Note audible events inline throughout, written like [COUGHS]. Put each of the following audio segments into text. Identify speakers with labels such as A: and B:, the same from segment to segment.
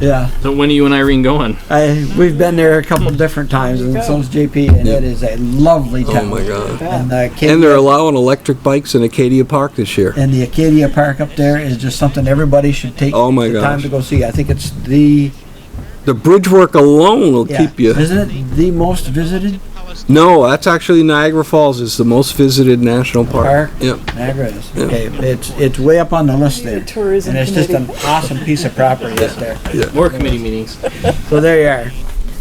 A: Yeah,
B: So when are you and Irene going?
A: I we've been there a couple different times, and so's JP, and it is a lovely
C: Oh
A: town.
C: my God.
A: And the Acadia,
C: And they're allowing electric bikes in Acadia Park this year.
A: and the Acadia Park up there is just something everybody should take
C: Oh my
A: the
C: gosh.
A: time to go see. I think it's the
C: The bridge work alone will
A: yeah,
C: keep you.
A: isn't it the most visited
C: No, that's actually Niagara Falls is the most visited national
A: Park?
C: park. Yep.
A: Niagara is. Okay, it's it's way up on the list there,
D: Tourism
A: and it's just an
D: committee.
A: awesome piece of property that's there.
B: More committee meetings.
A: So there you are.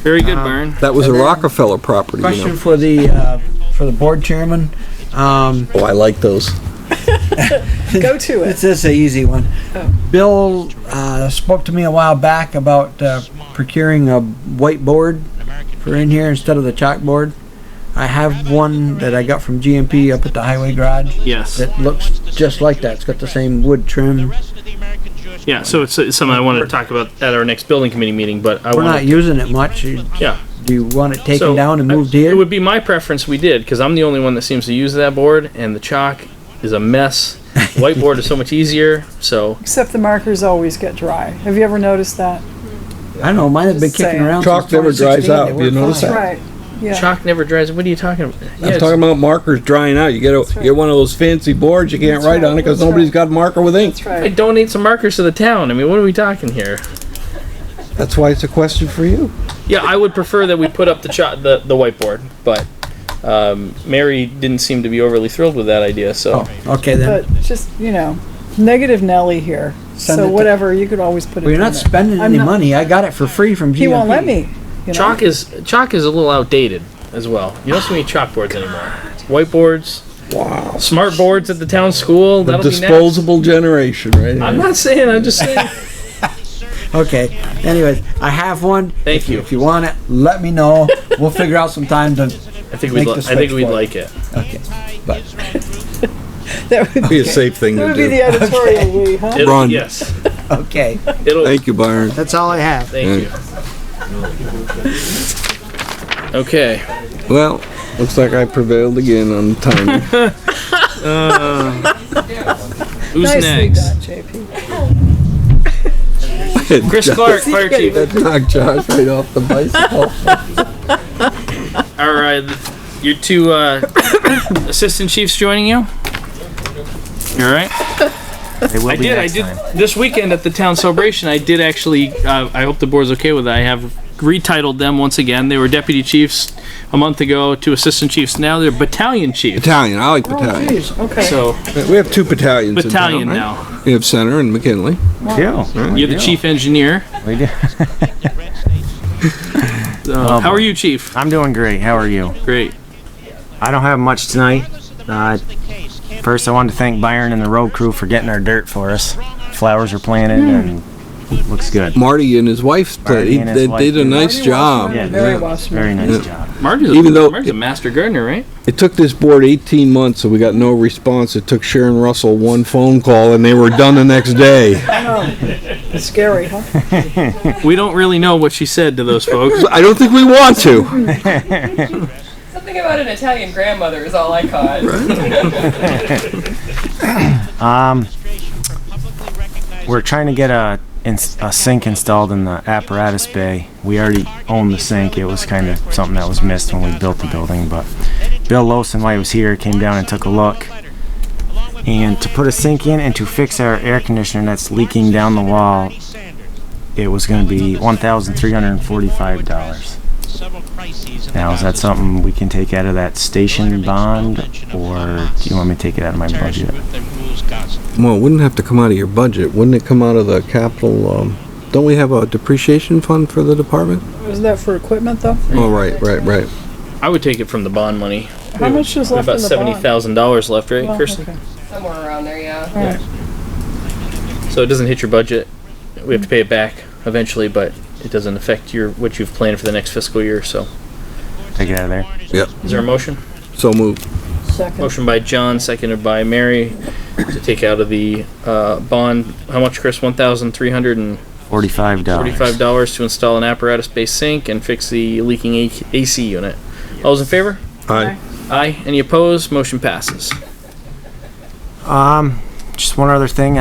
B: Very good, Byron.
C: That was a
A: And then-
C: Rockefeller property, you
A: Question
C: know.
A: for the uh, for the board chairman. Um,
C: Oh, I like those.
A: [LAUGHS]
D: Go to it. Oh.
A: It's just an easy one. Bill uh, spoke to me a while back about uh, procuring a whiteboard for in here instead of the chalkboard. I have one that I got from GMP up at the highway garage
B: Yes.
A: that looks just like that. It's got the same wood trim.
B: Yeah, so it's, it's something I want to talk about at our next building committee meeting, but I
A: We're not
B: want
A: using it much. You-
B: to. Yeah.
A: Do you want it taken
B: So,
A: down and
B: I-
A: moved
B: It
A: here?
B: would be my preference we did, because I'm the only one that seems to use that board, and the chalk is a mess. Whiteboard is so much easier, so.
D: Except the markers always get dry. Have you ever noticed that?
A: I don't know. Mine has been
D: Just
A: kicking
D: saying.
A: around.
C: Chalk
A: since
C: never dries
A: 2016.
C: out.
A: They
C: You
A: work
C: notice
A: fine.
C: that?
D: Right. Yeah.
B: Chalk never dries. What are you talking about? Yeah,
C: I'm
B: it's-
C: talking about markers drying out. You get a,
D: right.
C: get one of those fancy boards you can't
D: That's
C: write
D: right,
C: on it because
D: that's
C: nobody's
D: right.
C: got a marker with ink.
D: That's
B: I
D: right.
B: donate some markers to the town. I mean, what are we talking here?
C: That's why it's a question for you.
B: Yeah, I would prefer that we put up the chalk, the, the whiteboard, but um, Mary didn't seem to be overly thrilled with that idea, so.
A: Oh, okay then.
D: But just, you know, negative Nelly here.
A: Send it
D: So
A: to-
D: whatever, you could always put it
A: Well, you're
D: in
A: not
D: there.
A: spending
D: I'm
A: any
D: not-
A: money. I got it for free from GMP.
D: He won't let me. you know?
B: Chalk is chalk is a little outdated as well. You don't see many chalkboards anymore. Whiteboards,
C: Wow.
B: smart boards at the town school.
C: The
B: That'll be
C: disposable generation, right?
B: next. I'm not saying. I'm just [LAUGHS] saying.
A: Okay. Anyways, I have one.
B: Thank
A: If
B: you.
A: If you want it, let me know. We'll figure out some time to.
B: I think
A: Make
B: we'd. Li-
A: the
B: I think we'd
A: switchboard.
B: like it.
A: Okay.
D: That would
C: Be a safe thing
D: that
C: to
D: would be
C: do.
D: the editorial we, huh?
B: It'll,
C: Run.
B: Yes.
A: Okay.
B: It'll. Thank,
C: Thank you, Byron.
A: That's all I have.
B: you. Okay.
C: Well, looks like I prevailed again on the timing.
B: Who's
D: Nicely
B: next?
D: done, JP.
C: [LAUGHS]
B: Chris [LAUGHS] Clark, fire chief.
C: That knocked Josh right off the bicycle.
B: All right, uh, your two uh, [COUGHS] assistant chiefs joining you. All right. I did. I did this weekend at the town celebration. I did actually. Uh, I hope the board's okay with that. I have retitled them once again. They were deputy chiefs a month ago to assistant chiefs. Now they're battalion chiefs.
C: Battalion. I like battalion.
D: Jeez, Okay.
B: So
C: Oh, We have two battalions. in town,
B: battalion
C: right?
B: now.
C: We have Center and McKinley.
E: Yeah,
B: You're the chief engineer.
E: we do.
C: Oh
B: Uh, how are you, chief?
E: I'm doing great. How are you?
B: Great.
E: I don't have much tonight. Uh, first, I wanted to thank Byron and the road crew for getting our dirt for us. Flowers are planted and looks good.
C: Marty and his wife played.
E: Marty and his
C: they
E: wife
C: did a
E: did.
C: nice
D: Marty
C: job.
D: Wasserman,
E: Yeah,
D: Very
C: yeah.
E: Very
D: Wasserman.
E: nice job.
B: Marty's a,
C: Even though-
B: Marty's a master gardener, right?
C: It took this board 18 months, and we got no response. It took Sharon Russell one phone call, and they were done the next day.
D: It's Scary, huh?
B: We don't really know what she said to those
C: [LAUGHS]
B: folks.
C: I don't think we want to.
F: Something about an Italian grandmother is all I caught.
E: Um, we're trying to get a, ins- a sink installed in the apparatus bay. We already own the sink. It was kind of something that was missed when we built the building, but Bill Lowson, while he was here, came down and took a look. And to put a sink in and to fix our air conditioner that's leaking down the wall, it was going to be $1,345. Now, is that something we can take out of that station bond, or do you want me to take it out of my budget?
C: Well, it wouldn't have to come out of your budget. Wouldn't it come out of the capital? Um, don't we have a depreciation fund for the department?
D: Isn't that for equipment, though?
C: Oh, right, right, right.
B: I would take it from the bond money.
D: How much is left in
B: About
D: the
B: seventy
D: bond?
B: thousand dollars left, right,
D: Well,
B: Kirsten?
D: okay.
F: Somewhere around there, yeah.
B: So it doesn't hit your budget. We have to pay it back eventually, but it doesn't affect your what you've planned for the next fiscal year. So,
E: Take it out of there.
C: Yep.
B: is there a motion?
C: So moved.
D: Second.
B: Motion by John, seconded by Mary, to take out of the uh, bond. How much, Chris? One thousand three hundred and
E: Forty-five dollars.
B: forty-five dollars to install an apparatus-based sink and fix the leaking A- AC unit. All those in favor?
C: Aye.
B: Aye. Any opposed? Motion passes.
E: Um, just one other thing.